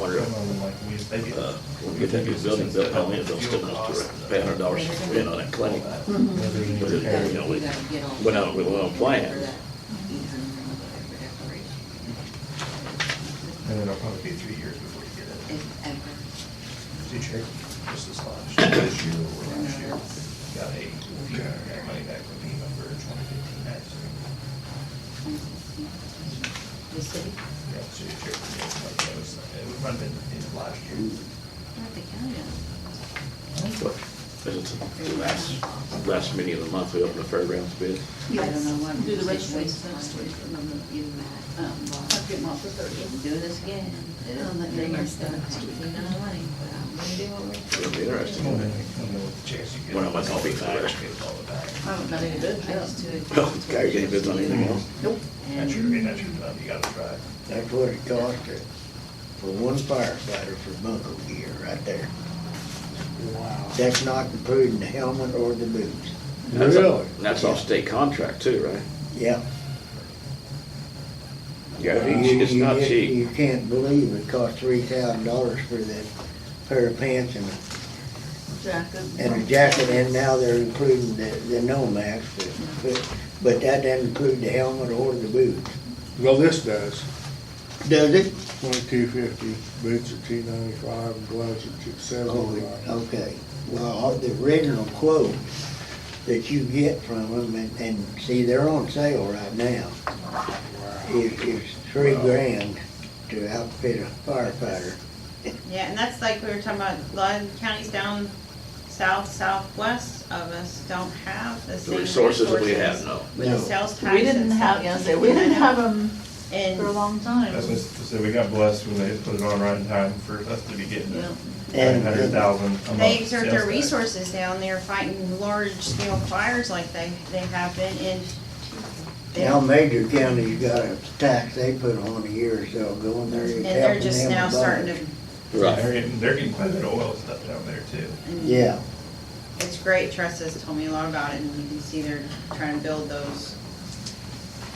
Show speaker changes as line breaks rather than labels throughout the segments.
like we, they get.
Uh, When we think of building built on it, they'll still not pay a hundred dollars to spend on that claim.
Whether you
But it-
repair it.
yeah. we went out with a little plan.
And it'll probably be three years before you get it.
If ever.
Did you check just this last, this year or last year? Got a, got money back from FEMA for twenty fifteen, that's,
The city?
yeah, so you check, like, that was, it would have been in the last year.
Not the county.
But It's the last, last meeting of the month, we open the fairgrounds bid.
I don't know what.
Do the
registration.
registrations next week, and then the-
You might, um,
I'll get mine for thirty.
do this again, do it on that
Yeah,
thing, it's
next
gonna
time.
cost you no money, but I'm gonna do what we're.
It'll be interesting.
Come on, man, come on, with the checks you get.
Well, I must be back.
It's all the time.
I haven't got any bids
I
yet.
just do it.
Well, Oh, Gary, any bids on anything else?
Nope.
That's your, that's your job, you gotta try.
That's what it cost to- for one firefighter for bunker gear right there. Wow. That's not including the helmet or the boots.
That's a- That's off state contract too, right?
Yeah.
Gary,
You-
it's
you
not
just-
cheap.
You can't believe it cost three thousand dollars for that pair of pants and,
Jacket.
and a jacket, and now they're including the, the no-mask. but- But, but that doesn't include the helmet or the boots.
Well, this does,
Does it?
twenty-two fifty, boots are two ninety-five, and gloves are two
Oh,
seventy-five.
okay. Well, uh, the original quote that you get from them, and, and see, they're on sale right now, is, is three grand to outfit a firefighter.
Yeah, and that's like we were talking about, a lot of counties down south, southwest of us don't have the
The
same
resources
resources.
that we have, no.
With the
No.
sales tax.
We didn't
and
have,
stuff.
yeah, I said, we didn't have them
And,
for a long time.
That's what, so we got blessed when they put it on right in time for us to be getting
Yeah.
And-
nine hundred thousand a month.
They exert
sales
their
tax.
resources down there fighting large scale fires like they, they have been in.
Now, major counties got a tax they put on a year or so ago, and they're
And
helping them.
they're just now
a
starting
bunch.
to,
They're getting, they're getting quite a bit of oil stuff down there too.
Yeah,
it's great, Tressa has told me a lot about it and you can see they're trying to build those.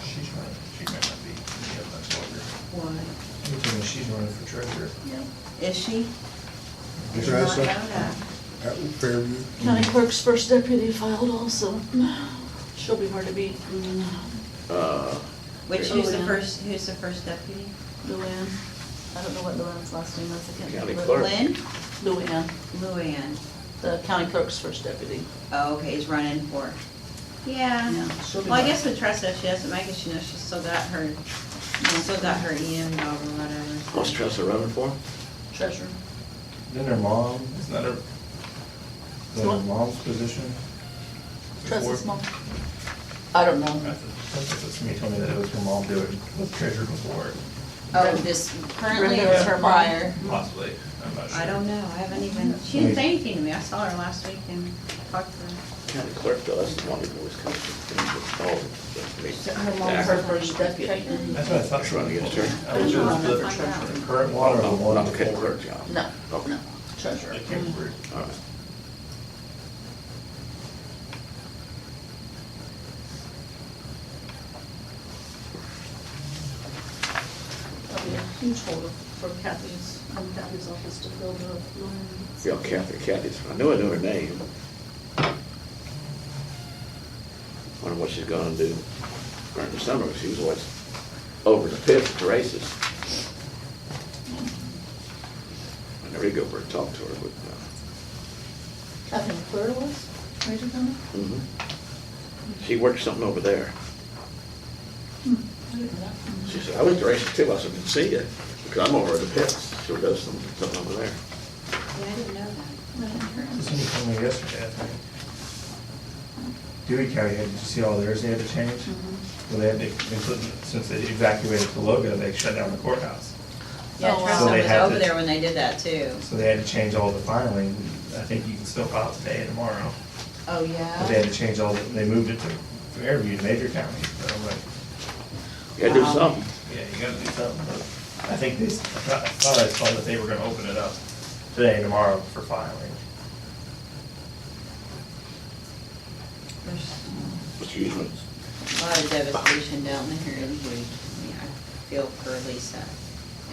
She's running, she might not be, she has much longer.
Why?
She told me she's running for treasurer.
Is she?
Is
Did
that
not
so?
know that.
That would fair you.
County clerk's first deputy filed also. She'll be hard to beat.
Uh,
Which,
Oh,
who's the
yeah.
first, who's the first deputy?
Luann. I don't know what Luann's last name is. I can't
County
remember.
clerk.
Lynn?
Luann,
Luann.
the county clerk's first deputy.
Oh, okay, he's running for. it. Yeah.
Yeah, she'll be
Well, I
back.
guess with Tressa, if she doesn't make it, she knows she's still got her, still got her EM job or whatever.
what's Tressa running for?
Treasurer.
Then her mom, isn't that her, then her
What?
mom's position?
Tressa's
Before-
mom. I don't know.
That's what- that's what she told me that it was her mom doing, was treasurer before,
Oh, this currently
Brenda
or
or
prior?
possibly, I'm not sure.
I don't know, I haven't even, she didn't say anything to me, I saw her last week and talked to
County clerk, though, that's the one that always comes to Oh, things with all
Her
the-
mom's her first deputy.
That's what I thought.
That's running against her.
I was sure it was
her.
the
Find out.
the current one or the
Oh,
one.
not the county
before.
clerk job.
No,
Okay,
no, treasurer.
I can't remember.
all right.
That'd be a huge hole for Kathy's, from Kathy's office to fill the Luann's.
Yeah, Kathy, Kathy's, I knew I knew her name. Wonder what she's gonna do during the summer, 'cause she was always over the pit at the races. I never did go over and talk to her, but, uh,
Kathy McClure was, Major County?
uh, mhm. she worked something over there.
I didn't know that.
She said, I was at the races too, I said, "Didn't see you, because I'm over at the pits, she does some- something over there.
her. Yeah, I didn't know that.
Somebody told me yesterday, I think. Dewey County had, did you see all theirs they had to change? Well, they had, they, they put- since they evacuated Cologa, they shut down the courthouse.
Yeah, Tressa
Oh, wow.
So they had
was over
to-
there when they did that too.
So they had to change all the filing. I think you can still file today and tomorrow.
Oh,
But they had
yeah?
to change all, the they moved it to Fairview, Major County. So I'm like,
You gotta do
Wow.
something.
yeah, you gotta do something. But I think they, s- I thought I thought I saw that they were gonna open it up today and tomorrow for filing.
There's
Excuse me.
a lot of devastation down there in Bowie. I feel for Lisa.